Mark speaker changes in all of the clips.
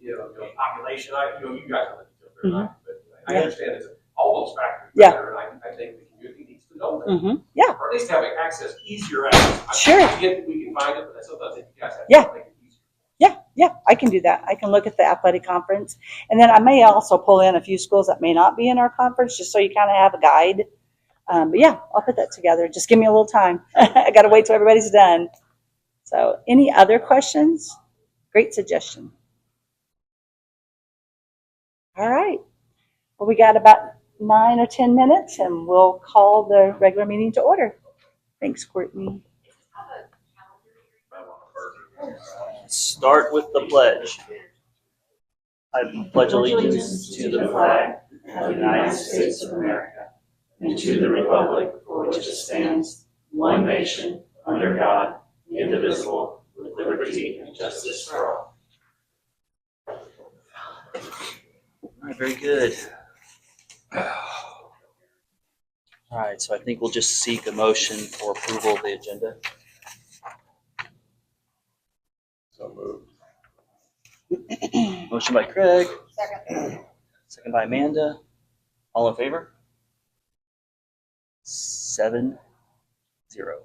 Speaker 1: the population, I, you know, you guys don't think you're not, but I
Speaker 2: Yeah.
Speaker 1: understand it's all those factors.
Speaker 2: Mm-hmm. Yeah.
Speaker 1: together, And I, I think the community needs to know that,
Speaker 2: Mm-hmm.
Speaker 1: or at least have access, easier access. I-
Speaker 2: Sure.
Speaker 1: I get that we can find it, but I sometimes think you guys have
Speaker 2: Yeah.
Speaker 1: to make it easier.
Speaker 2: Yeah, yeah, I can do that. I can look at the athletic conference. And then I may also pull in a few schools that may not be in our conference, just so you kind of have a guide. Um, but yeah, I'll put that together. Just give me a little time. I got to wait till everybody's done. So any other questions? Great suggestion. All right. Well, we got about nine or 10 minutes and we'll call the regular meeting to order. Thanks, Courtney.
Speaker 3: Start with the pledge. I pledge allegiance to the flag of the United States of America and to the republic for which it stands, one nation, under God, indivisible, with liberty and justice for all. All right, very good. All right, so I think we'll just seek a motion for approval of the agenda.
Speaker 4: So moved.
Speaker 3: Motion by Craig. Second by Amanda. All in favor? Seven, zero.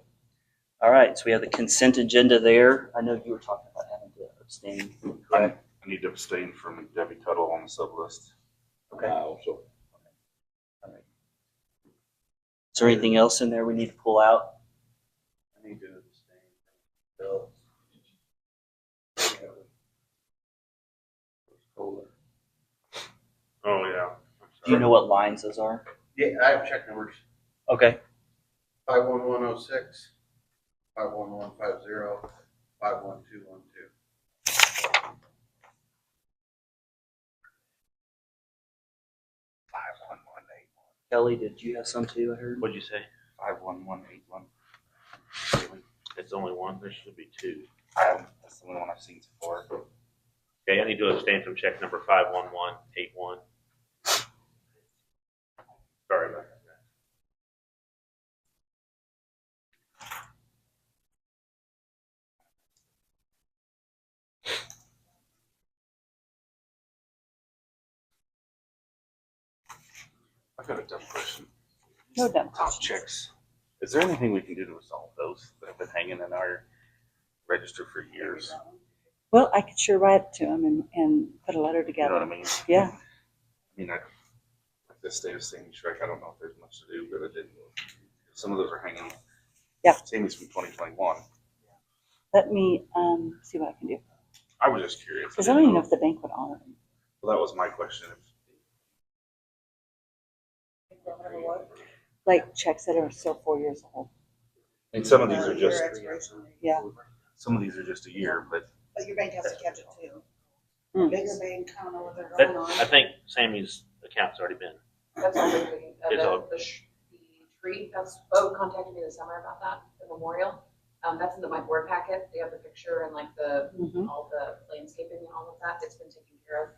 Speaker 3: All right, so we have the consent agenda there. I know you were talking about having to abstain. correct?
Speaker 5: I need to abstain from Debbie Tuttle on the sub list.
Speaker 3: Okay.
Speaker 4: I also,
Speaker 3: Is there anything else in there we need to pull out?
Speaker 4: I need to abstain. Bill.
Speaker 5: Oh, yeah.
Speaker 3: Do you know what lines those are?
Speaker 6: Yeah, I have check numbers,
Speaker 3: Okay,
Speaker 6: five one one oh six, five one one five zero, five one two one two.
Speaker 5: Five one one eight,
Speaker 3: Kelly, did you have some too, I heard?
Speaker 5: what'd you say? Five one one eight one. It's only one, there should be two. Um, That's the only one I've seen so far.
Speaker 7: Okay, I need to abstain from check number five one one eight one. Sorry about that.
Speaker 5: I've got a dumb question.
Speaker 2: No dumb
Speaker 5: Top
Speaker 2: questions.
Speaker 5: chicks. Is there anything we can do to resolve those that have been hanging in our register for years?
Speaker 2: Well, I could sure write to him and, and put a letter
Speaker 5: You know what
Speaker 2: together.
Speaker 5: I mean?
Speaker 2: Yeah.
Speaker 5: I mean, I, like the state of Sandy Shrek, I don't know if there's much to do, but I didn't. Some of those are hanging.
Speaker 2: Yeah.
Speaker 5: Sammy's from twenty twenty-one.
Speaker 2: Let me um, see what I can do.
Speaker 5: I was just curious.
Speaker 2: Because I don't even know if the bank would honor them.
Speaker 5: Well, that was my question.
Speaker 2: Like checks that are still four years old.
Speaker 5: And some of these are just,
Speaker 2: Yeah.
Speaker 5: some of these are just a year, but
Speaker 8: But your bank has to catch it too.
Speaker 5: Hmm.
Speaker 2: Mm.
Speaker 8: Bigger bank, I don't know what they're
Speaker 7: That,
Speaker 8: going on.
Speaker 7: I think Sammy's account's already been,
Speaker 9: That's all they're doing. Uh,
Speaker 7: It's
Speaker 9: the-
Speaker 7: all-
Speaker 9: The sh- the tree, that's, Bo contacted me this summer about that, the memorial. Um, that's in the, my board packet. They have the picture and like the,
Speaker 2: Mhm.
Speaker 9: all the landscaping and all of that. It's been taken care of.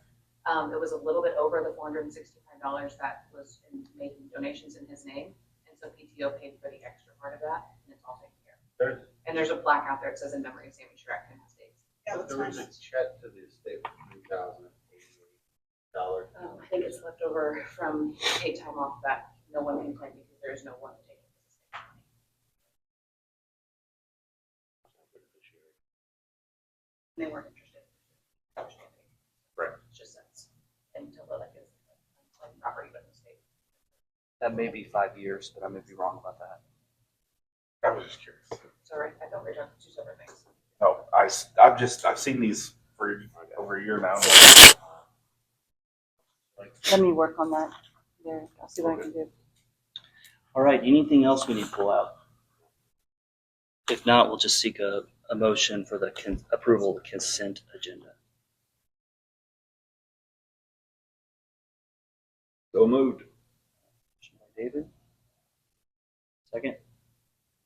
Speaker 9: Um, it was a little bit over the four hundred and sixty-five dollars that was in making donations in his name. And so PTO paid for the extra part of that and it's all taken care of.
Speaker 6: There,
Speaker 9: And there's a plaque out there. It says in memory of Sammy Shrek and his dates.
Speaker 8: Yeah, that's
Speaker 6: there was a
Speaker 8: fine.
Speaker 6: check to the estate for three thousand eighty-eight dollars.
Speaker 9: Um, I think it's left over from paid time off that no one can claim because there is no one to take it. They weren't interested.
Speaker 5: Right.
Speaker 9: It's just that's until the like is like property but mistake.
Speaker 3: That may be five years, but I may be wrong about that.
Speaker 5: I was just curious.
Speaker 9: Sorry, I don't read on two separate things.
Speaker 5: No, I, have just, I've seen these for over a year now.
Speaker 2: Let me work on that. There, I'll see what I can do.
Speaker 3: All right, anything else we need to pull out? If not, we'll just seek a, a motion for the con- approval of the consent agenda.
Speaker 4: So moved.
Speaker 3: Motion by David. Second,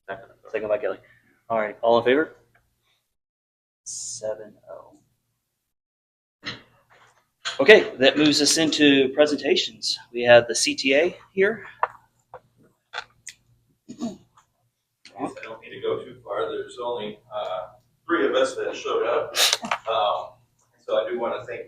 Speaker 5: Second.
Speaker 3: second by Kelly. All right, all in favor? Seven oh. Okay, that moves us into presentations. We have the CTA here.
Speaker 1: I don't need to go too far. There's only, uh, three of us that showed up. Um, so I do want to thank